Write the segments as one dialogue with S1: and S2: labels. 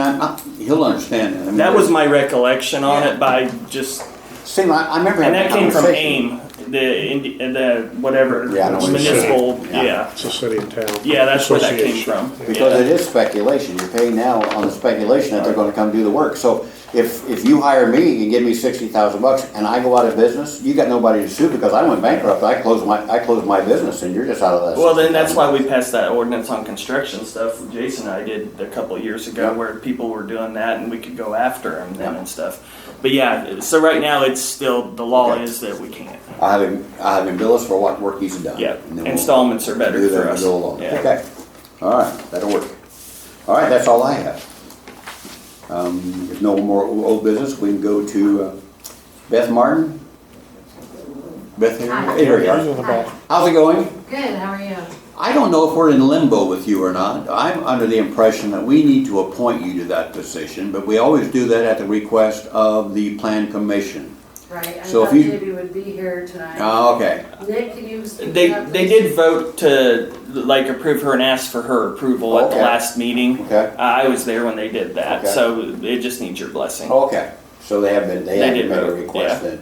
S1: I, he'll understand. I mean,
S2: That was my recollection on it by just,
S1: Same, I, I remember
S2: and
S1: having
S2: that
S1: a
S2: came from
S1: conversation.
S2: AIM, the, Indi- the, whatever,
S1: Yeah, I know what
S3: you're
S2: municipal,
S1: saying. Yeah.
S2: yeah.
S3: It's a city and town.
S2: Yeah, that's where that came
S3: association.
S2: from.
S1: Because
S2: Yeah.
S1: it is speculation. You're paying now on the speculation that they're gonna come do the work. So if, if you hire me and give me sixty thousand bucks and I go out of business, you got nobody to sue because I went bankrupt. I closed my, I closed my business and you're just out of that.
S2: Well, then that's
S1: $60,000.
S2: why we passed that ordinance on construction stuff. Jason and I did a couple of years ago
S1: Yeah.
S2: where people were doing that and we could go after them then
S1: Yeah.
S2: and stuff. But yeah, so right now it's still, the law
S1: Okay.
S2: is that we can't.
S1: I have him, I have him bill us for what work he's done.
S2: Yeah,
S1: And then we'll
S2: installments are better
S1: do that
S2: for
S1: and
S2: us.
S1: go along.
S2: Yeah.
S1: Okay, all right, that'll work. All right, that's all I have. Um, if no more old business, we can go to uh, Beth Martin. Beth,
S4: Hi.
S1: here you
S3: Yours
S1: are.
S3: in the back.
S1: How's it going?
S4: Good, how are you?
S1: I don't know if we're in limbo with you or not. I'm under the impression that we need to appoint you to that position, but we always do that at the request of the plan commission.
S4: Right, I
S1: So if
S4: thought
S1: you-
S4: maybe would be here tonight.
S1: Ah, Okay,
S4: Nick, can you speak
S2: They,
S4: up,
S2: they
S4: please?
S2: did vote to like approve her and ask for her approval at the
S1: Okay.
S2: last meeting.
S1: Okay.
S2: I was there when they did that,
S1: Okay. Oh.
S2: so it just needs your blessing.
S1: Okay, so they have been, they
S2: They
S1: have
S2: did
S1: made a
S2: vote,
S1: request then.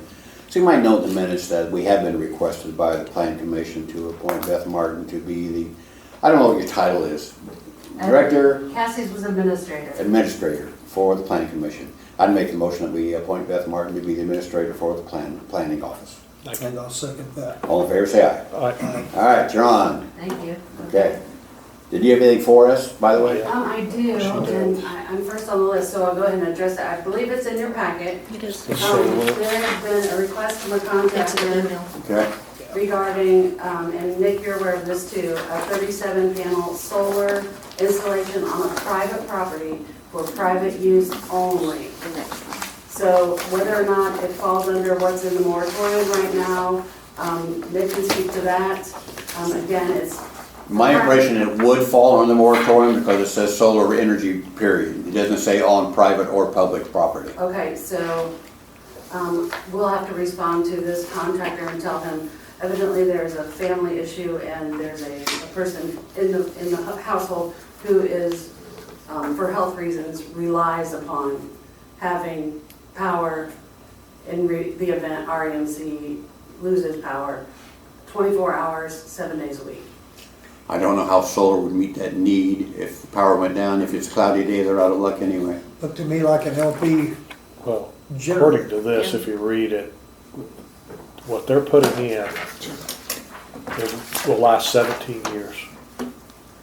S1: So you might note in the minutes that we have been requested by the plan commission to appoint Beth Martin to be the, I don't know what your title is, director,
S4: Cassie's was administrator.
S1: administrator for the planning commission. I'd make the motion that we appoint Beth Martin to be the administrator for the plan, planning office.
S5: And I'll second that.
S1: All in favor, say aye.
S3: I-
S1: All right, you're on.
S4: Thank you.
S1: Okay. Did you have anything for us, by the way?
S4: Um, I do, and I- I'm first on the list, so I'll go ahead and address it. I believe it's in your packet.
S6: It is.
S4: Um, There has been a request from a
S6: It's
S4: contact
S6: an
S4: in
S6: email.
S1: Okay,
S4: regarding, um, and Nick, you're aware of this too, a 37 panel solar installation on a private property for private use only. So whether or not it falls under what's in the moratorium right now, um, Nick can speak to that. Um, Again, it's,
S1: my impression it would fall under the moratorium because it says solar energy, period. It doesn't say on private or public property.
S4: okay, so um, we'll have to respond to this contractor and tell him evidently there's a family issue and there's a a person in the, in the household who is um, for health reasons, relies upon having power in re- the event REMC loses power 24 hours, seven days a week.
S1: I don't know how solar would meet that need if the power went down, if it's cloudy day, they're out of luck anyway.
S5: Looked to me like an LP
S3: Well,
S5: generator.
S3: according to this, if you read it, what they're putting in, it will last seventeen years.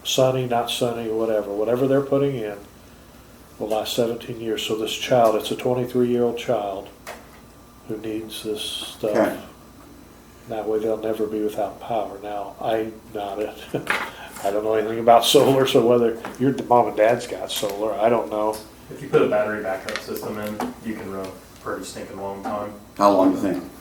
S3: Sunny, not sunny, whatever, whatever they're putting in will last seventeen years. So this child, it's a twenty-three-year-old child who needs this
S1: Okay.
S3: stuff. That way they'll never be without power. Now, I not it. I don't know anything about solar, so whether your mom and dad's got solar, I don't know.
S7: If you put a battery backup system in, you can run a pretty stinking long time.
S1: How long do you think?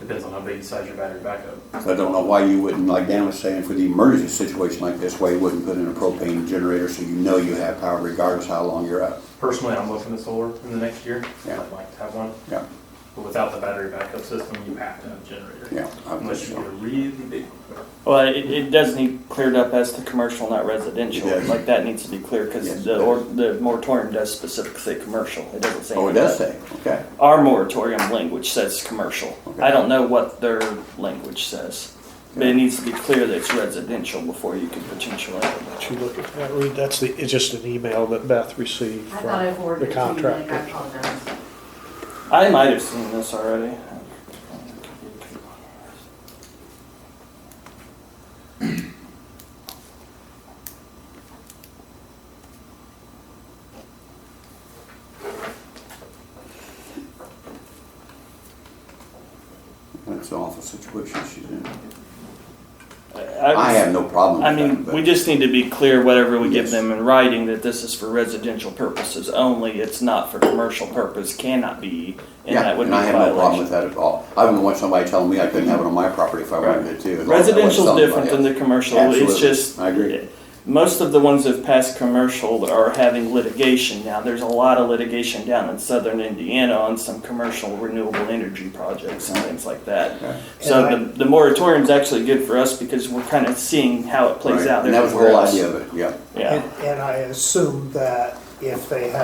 S7: Depends on how big you size your battery backup.
S1: 'Cause I don't know why you wouldn't, like Dan was saying, for the emergency situation like this, why you wouldn't put in a propane generator so you know you have power regardless how long you're out.
S7: Personally, I'm looking at solar in the next year.
S1: Yeah.
S7: I'd like to have one,
S1: Yeah,
S7: but without the battery backup system, you have to have a generator.
S1: yeah. I would
S7: Unless
S1: think
S7: you
S1: so.
S7: get a really big one.
S2: Well, it, it does need cleared up as to commercial, not residential.
S1: It does.
S2: Like that needs to be clear because
S1: Yes,
S2: the,
S1: it
S2: or, the moratorium does specifically say commercial. It doesn't say.
S1: Oh, it does say, okay.
S2: Our moratorium language says commercial.
S1: Okay.
S2: I don't know what their language says, but it needs to be clear that it's residential before you could potentially.
S3: Did you look at that, Reed? That's the, it's just an email that Beth received
S4: I thought I
S3: from the
S4: forwarded it to you, Nick,
S3: contractor.
S4: I apologize.
S2: I might have seen this already.
S1: That's an awful situation she's in.
S2: I,
S1: I have no problem
S2: I
S1: with that.
S2: mean,
S1: but-
S2: we just need to be clear whatever we give
S1: Yes.
S2: them in writing that this is for residential purposes only. It's not for commercial purpose, cannot be, and
S1: Yeah,
S2: that would be
S1: and I
S2: a
S1: have no problem with
S2: violation.
S1: that at all. I wouldn't want somebody telling me I couldn't have it on my property if I wanted it to. as long as I wasn't
S2: Residential's
S1: somebody
S2: different than
S1: else.
S2: the commercial.
S1: Absolutely.
S2: It's just.
S1: I agree.
S2: Most of the ones that passed commercial are having litigation now. There's a lot of litigation down in southern Indiana on some commercial renewable energy projects and things like that.
S1: Okay.
S2: So
S5: And
S2: the, the moratorium's actually good for us because we're kind of seeing how it plays
S1: Right,
S2: out
S1: And that was the
S2: everywhere
S1: whole
S2: else.
S1: idea of it, yeah.
S2: Yeah.
S5: And and I assume that if they have